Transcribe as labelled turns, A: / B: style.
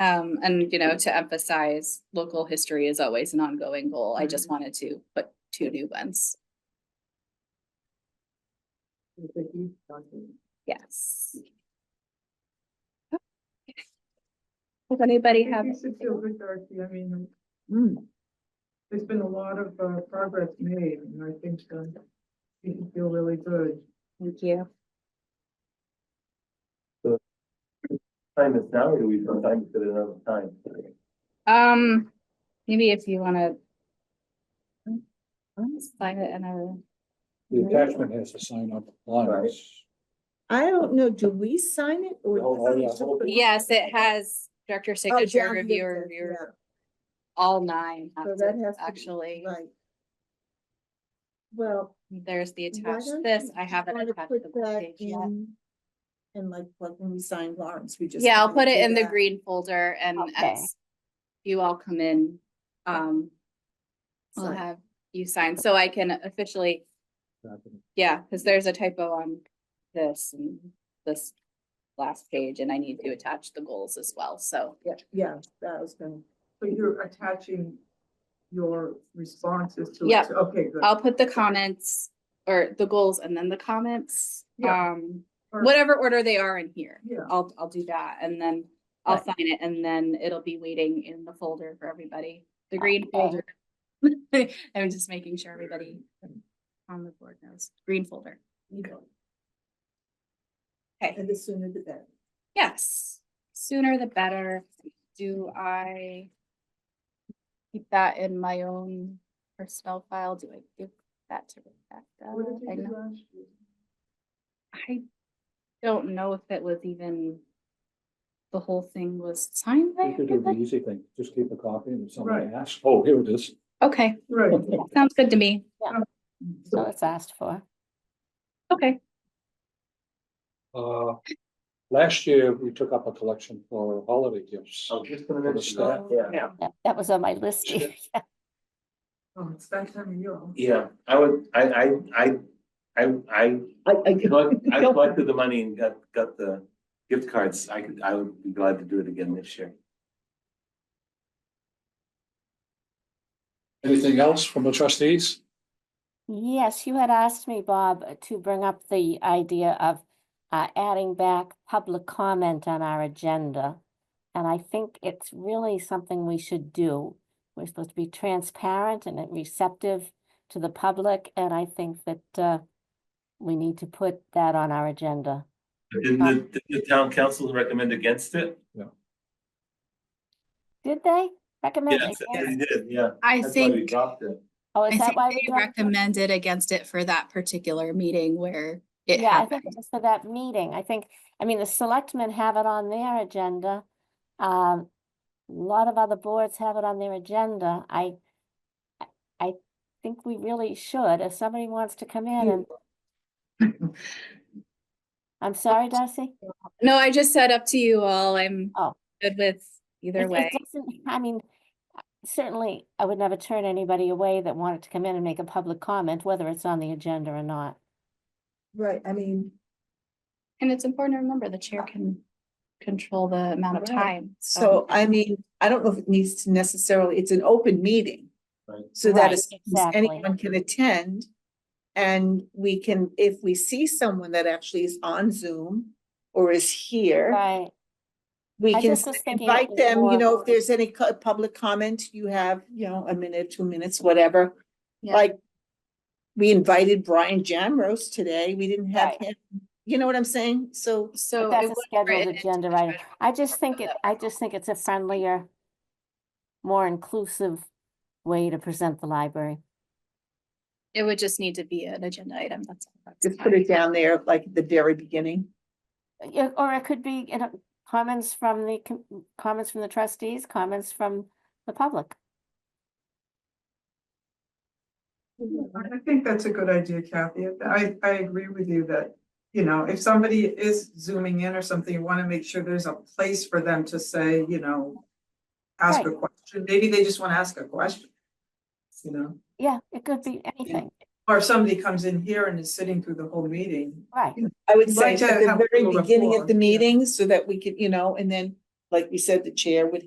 A: Um, and you know, to emphasize, local history is always an ongoing goal. I
B: Mm-hmm.
A: just wanted to put two new ones. Yes. Does anybody have?
C: You should feel good, Darcy. I mean,
B: Mm.
C: there's been a lot of uh, progress made and I think uh, you can feel really good.
A: Thank you.
D: Time is now, or do we sometimes fit another time?
A: Um, maybe if you wanna
B: I'm-
A: slide it in
B: uh,
A: a,
E: The attachment has to sign up lines.
B: I don't know, do we sign it or?
E: Oh, oh, yeah, hold it.
A: yes, it has director
B: Oh,
A: signature,
B: John did
A: reviewer,
B: that,
A: reviewer,
B: yeah,
A: all nine. have
B: So
A: to-
B: that has to be
A: Actually,
B: Right. Well.
A: there's the
B: why
A: attached,
B: don't
A: this,
B: you
A: I haven't
B: try to
A: attached
B: put
A: the
B: that
A: page yet.
B: in, And like, like when we signed Lawrence, we just.
A: Yeah, I'll
B: kinda
A: put it
B: do
A: in the
B: that.
A: green folder and
F: Okay.
A: as you all come in, um, we'll
B: Sign.
A: have you sign, so I can officially, yeah, because there's a typo on this and this last page, and I need to attach the goals as well, so.
B: Yeah, yeah, that was gonna.
C: So you're attaching your responses to it.
A: Yep.
C: So- Okay, good.
A: I'll put the comments or the goals and then the comments,
C: Yeah.
A: um,
C: Or-
A: whatever order they are in here.
C: Yeah.
A: I'll, I'll do that and then I'll
F: Right.
A: sign it and then it'll be waiting in the folder for everybody, the green
F: Okay.
A: folder. I'm just making sure everybody on the board knows, green folder. Okay,
B: And the sooner the better.
A: yes, sooner the better. Do I keep that in my own personnel file? Do I give that to
C: What did
A: Rebecca? I
C: you
A: know-
C: do last year?
A: I don't know if it was even, the whole thing was signed by
E: You could do the
A: everybody.
E: easy thing, just keep a copy and if somebody
C: Right.
E: asks, oh, here it is.
A: Okay,
C: Right.
A: sounds good to me.
F: So it's asked for.
A: Okay,
E: Uh, last year, we took up a collection for holiday gifts.
D: I'm Oh, just gonna
E: For the
D: mention that,
E: staff.
D: yeah.
F: That, that was on my list.
D: Sure.
C: Oh, it's that time of year.
D: Yeah, I would, I, I, I, I, I,
B: I, I
D: collect- I collected the money and got, got the gift cards. I could, I would be glad to do it again this year.
E: Anything else from the trustees?
F: Yes, you had asked me, Bob, uh, to bring up the idea of uh, adding back public comment on our agenda. And I think it's really something we should do. We're supposed to be transparent and receptive to the public, and I think that uh, we need to put that on our agenda.
D: Didn't the, didn't the town council recommend against it?
F: Did they recommend?
D: Yes, they
F: against-
D: did, yeah.
A: I
D: That's why we
A: think,
D: dropped it.
F: Oh,
A: I
F: is that
A: think
F: why? we
A: they
F: dropped it?
A: recommended against it for that particular meeting where it
F: Yeah, I think
A: happened.
F: just for that meeting, I think, I mean, the selectmen have it on their agenda. Um, a lot of other boards have it on their agenda. I, I- I think we really should, if somebody wants to come in and. I'm sorry, Darcy.
A: No, I just said up to you all. I'm
F: Oh.
A: good with either
F: It- it
A: way.
F: doesn't- I mean, certainly, I would never turn anybody away that wanted to come in and make a public comment, whether it's on the agenda or not.
B: Right, I mean,
A: And it's important to remember the chair can control the amount of
B: Right.
A: time.
B: so I mean, I don't know if it needs to necessarily, it's an open meeting.
D: Right.
B: So that
F: Right,
B: is,
F: exactly.
B: anyone can attend. And we can, if we see someone that actually is on Zoom or is here.
F: Right,
B: We
F: I
B: can
F: just
B: s-
F: was thinking it
B: invite
F: was
B: them, you
F: more-
B: know, if there's any co- public comment, you have, you know, a minute, two minutes, whatever,
A: Yeah.
B: like. We invited Brian Jamrose today, we didn't have
F: Right.
B: him, you know what I'm saying, so.
A: So.
F: that's
A: it
F: a
A: was
F: scheduled
A: written into
F: agenda
A: the
F: item.
A: schedule.
F: I just think it,
A: that
F: I just think it's a friendlier, more inclusive way to present the library.
A: It would just need to be an agenda item. That's. all. That's
B: Just
A: fine.
B: put it down there, like at the very beginning,
F: Yeah, or it could be, you know, comments from the, com- comments from the trustees, comments from the public.
C: I think that's a good idea, Kathy. I, I agree with you that, you know, if somebody is zooming in or something, you want to make sure there's a place for them to say, you know, ask a
F: Right.
C: question. Maybe they just want to ask a question. You know,
F: Yeah, it could be anything,
C: or if somebody comes in here and is sitting through the whole meeting.
F: right.
B: I would
C: We'd
B: say
C: like
B: at
C: to have
B: the
C: a
B: very
C: little
B: beginning of
C: rapport,
B: the
C: yeah.
B: meeting, so that we could, you know, and then. like you said, the chair would